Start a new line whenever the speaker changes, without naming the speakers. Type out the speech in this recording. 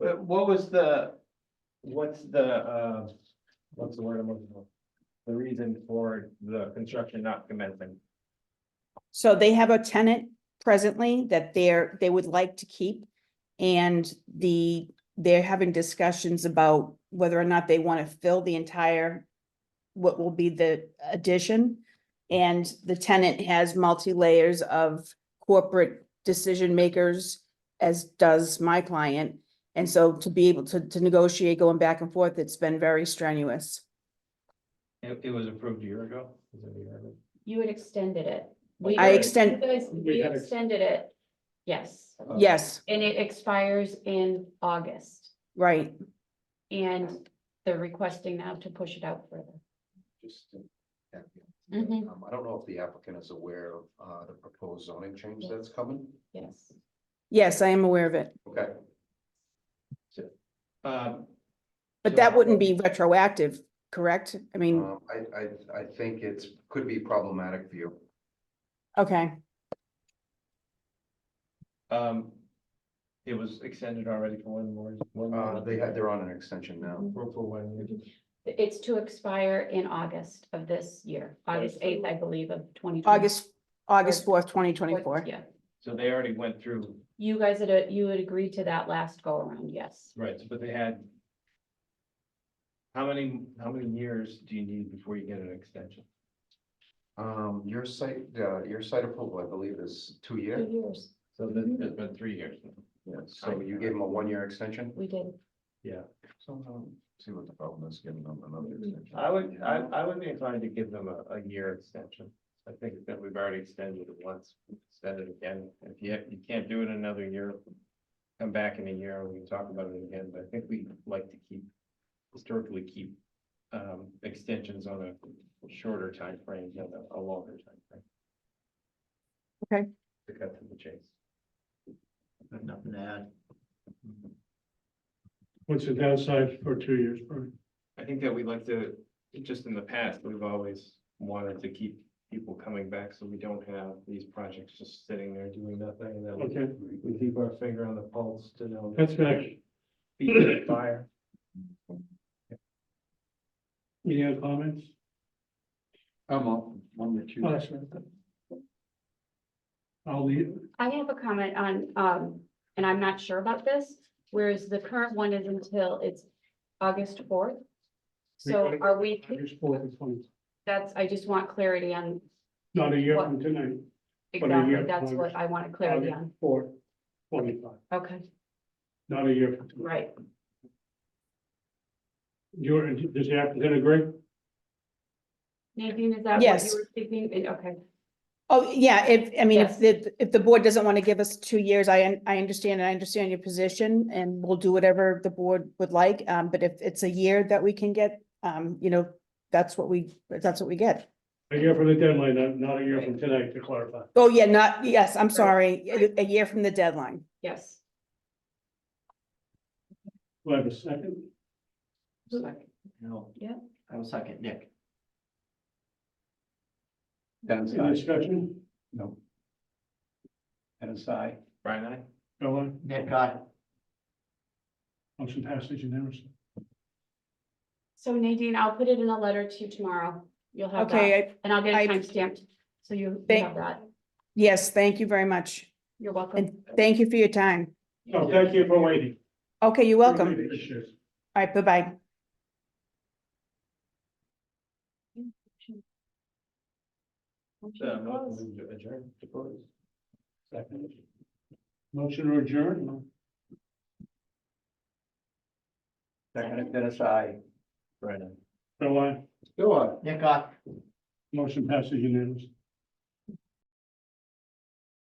the, Uh, what was the, what's the, uh, what's the word I'm looking for? The reason for the construction not commencing?
So they have a tenant presently that they're, they would like to keep. And the, they're having discussions about whether or not they want to fill the entire, what will be the addition. And the tenant has multi-layers of corporate decision makers, as does my client. And so to be able to, to negotiate going back and forth, it's been very strenuous.
It, it was approved a year ago. Is it a year ago?
You had extended it. We-
I
you
extend-
guys-
We
We
had ex-
extended it, yes,
Uh,
Yes,
and it expires in August.
right.
And they're requesting now to push it out further.
just. to-
Mhm.
Um, I don't know if the applicant is aware of, uh, the proposed zoning change that's coming.
Yes.
Yes, I am aware of it.
Okay,
Um,
But that wouldn't be retroactive, correct? I mean,
um, I, I, I think it's, could be problematic for you.
okay,
um, it was extended already for one more. one more-
Uh, they had, they're on an extension now.
For for one year.
It's to expire in August of this year, August eighth, I believe, of twenty.
August, August fourth, twenty twenty-four.
Yeah,
So they already went through,
you guys had, uh, you had agreed to that last go around, yes.
right, but they had. How many, how many years do you need before you get an extension?
Um, your site, uh, your site approval, I believe, is two
Two
year.
years,
So this has been three years.
Yeah, so you gave them a one year extension.
we did.
Somehow, um, see what the problem is, giving them another extension.
I would, I, I would be inclined to give them a, a year extension. I think that we've already extended it once, extend it again. If you, you can't do it another year, come back in a year and we can talk about it again, but I think we like to keep, historically keep um, extensions on a shorter time frame than a, a longer timeframe.
Okay.
To cut to the chase.
Got nothing to add.
What's the downside for two years, Brian?
I think that we like to, just in the past, we've always wanted to keep people coming back, so we don't have these projects just sitting there doing nothing, and that we-
Okay,
we keep our finger on the pulse to know.
that's next.
Feet to the fire.
Any other comments? Oh,
I'm on, one that you.
I'll leave.
I have a comment on, um, and I'm not sure about this, whereas the current one is until it's August fourth. So are we,
August fourth and twenty,
that's, I just want clarity on,
not a year from tonight, What are
exactly,
your
that's what I want clarity on.
four, twenty-five,
Okay,
not a year from tonight.
right.
You're, does the applicant agree?
Nadine, is that what
Yes.
you were thinking? And- Okay,
Oh, yeah, if, I mean, if
Yes.
the, if the board doesn't want to give us two years, I, un- I understand, and I understand your position, and we'll do whatever the board would like, um, but if it's a year that we can get, um, you know, that's what we, that's what we get.
A year from the deadline, not, not a year from tonight, to clarify.
Oh, yeah, not, yes, I'm sorry, a- a year from the deadline.
yes.
Do I have a second?
No.
Yeah.
I will second, Nick. Dennis,
Any discussion?
No. Dennis, I.
Brian, I,
Go on,
Nick, I.
motion passes unanimously.
So Nadine, I'll put it in a letter to you tomorrow. You'll have
Okay,
that,
I-
and I'll get
I-
it timestamped, so you you
Thank-
have that.
yes, thank you very much,
You're welcome.
and thank you for your time.
So Oh, thank you for waiting.
Okay, you're welcome.
Appreciate it.
All right, bye-bye.
uh, motion to adjourn, to close.
Second. Motion to adjourn?
Second, Dennis, I.
Brian, I.
Go on,
Go on. Nick, I.
motion passes unanimously.